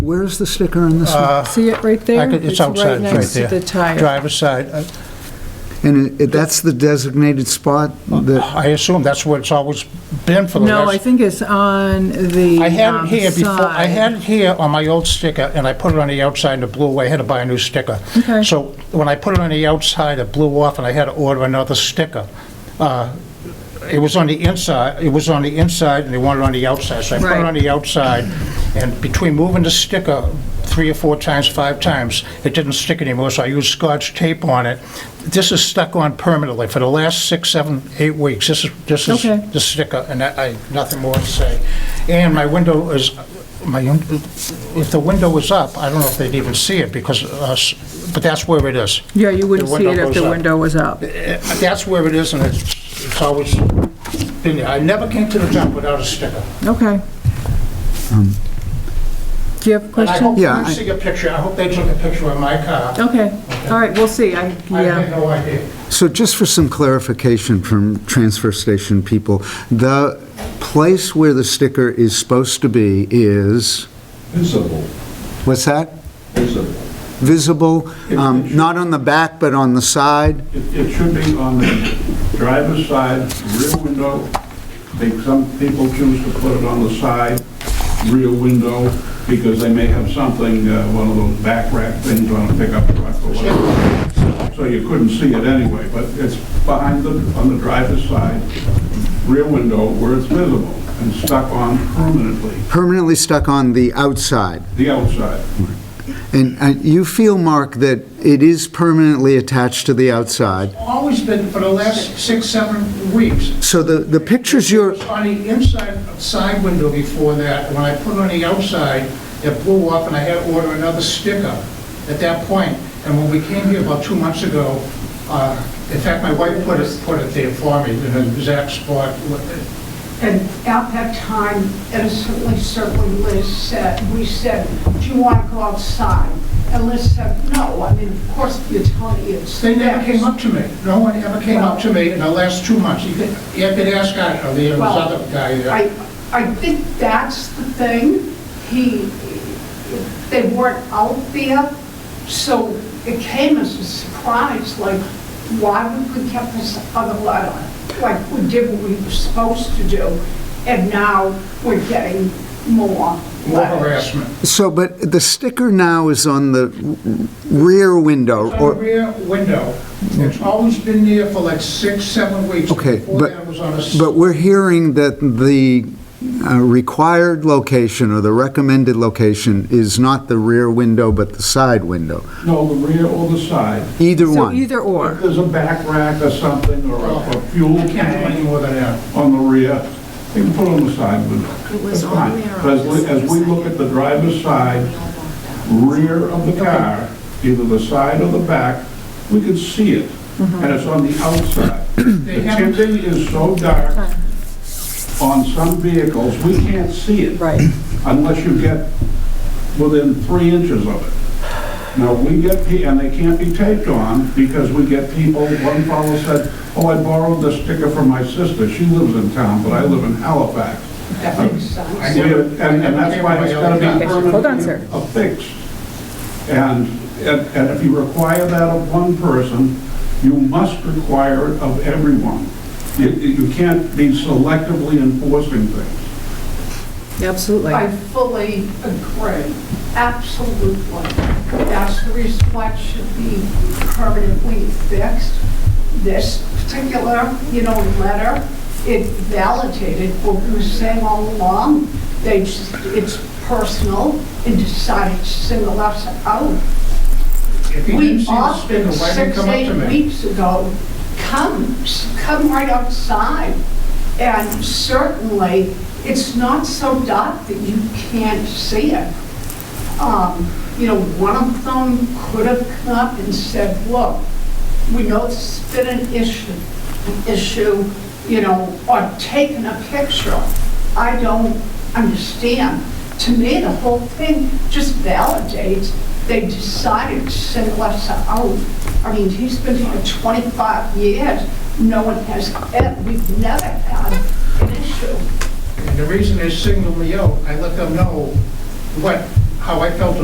Where's the sticker on this one? Uh, See it right there? I could- It's right outside, it's right next to there. the tire. Driver's side. Uh, And it- that's the designated spot that, I assume that's where it's always been for the No, I last... think it's on the I had it um, here before, I side. had it here on my old sticker, and I put it on the outside and it blew away. I had to buy a new sticker. Okay. So when I put it on the outside, it blew off, and I had to order another sticker. Uh, It was on the inside, it was on the inside, and they wanted it on the outside, so I put it Right. on the outside, and between moving the sticker three or four times, five times, it didn't stick anymore, so I used scotch tape on it. This is stuck on permanently for the last six, seven, eight weeks. This is, this is Okay. the sticker, and I, I- nothing more to say. And my window is, my, if the window was up, I don't know if they'd even see it, because, uh, s- but that's where it is. Yeah, you wouldn't The see it window if the goes up. window was up. Eh, That's where it is, and it's it's always been there. I never came to the dump without a sticker. Okay. Do you have a And I question? hope Yeah, you I- see a picture, I hope they took a picture of my car. Okay, all right, we'll see. I, I had yeah, no idea. so just for some clarification from transfer station people, the place where the sticker is supposed to be is, Visible, what's that? visible. Visible, um, not on the back, but on the side? It it should be on the driver's side, rear window. I think some people choose to put it on the side, rear window, because they may have something, uh, one of those back rack things on a pickup truck or whatever. So you couldn't see it anyway, but it's behind the, on the driver's side, rear window where it's visible and stuck on permanently, Permanently stuck on the outside? the outside. And uh, you feel, Mark, that it is permanently attached to the outside? Always been for the last six, seven weeks. So the, the pictures you're, It was on the inside side window before that, when I put it on the outside, it blew off, and I had to order another sticker at that point. And when we came here about two months ago, uh, in fact, my wife put it, put it there for me, in an exact spot. And at that time, innocently, certainly Liz said, we said, do you want to go outside? And Liz said, no, I mean, of course, you're telling me it's. They never came up to me, no one ever came up to me in the last two months. You could, you could ask, I, or the Well, other guy there. I, I think that's the thing. He, they weren't out there, so it came as a surprise, like, why would we kept this other letter? Like, we did what we were supposed to do, and now we're getting more More letters. harassment. so, but the sticker now is on the rear window, It's on the or, rear window. It's always been there for like six, seven weeks. okay, Before but, that, it was on a s- but we're hearing that the uh, required location or the recommended location is not the rear window, but the side window, No, the rear or the side. either so one. either If or. there's a back rack or something, or a a fuel I can't do any tank more than that. on the rear, you can put it on the side window. It was That's on fine. there. But As we, as we look at the driver's side, rear of the car, either the side or the back, we can see it, Mm-hmm. and it's on the outside. The They haven't- tinting is so dark on some vehicles, we can't see it Right. unless you get within three inches of it. Now, we get, pe- and they can't be taped on because we get people, one fellow said, oh, I borrowed this sticker from my sister, she lives in town, but I live in Halifax. That makes sense. We- And, and that's why it's gotta be Hold on, sir. permanently affixed. And, and and if you require that of one person, you must require it of everyone. You, you can't be selectively enforcing things. Absolutely. I fully agree, absolutely. That's the reason why it should be permanently fixed. This particular, you know, letter, it validated what we were saying all along. They just, it's personal and decided to single us out. If you didn't We see the sticker, offered why didn't six, come up to eight me? weeks ago, come, s- come right outside. And certainly, it's not so dark that you can't see it. Um, You know, one of them could have come up and said, look, we know this has been an issue, an issue, you know, or taken a picture. I don't understand. To me, the whole thing just validates they decided to send us out. I mean, he's been here 25 years, no one has, eh, we've never had an issue. And the reason they singled me out, I let them know what how I felt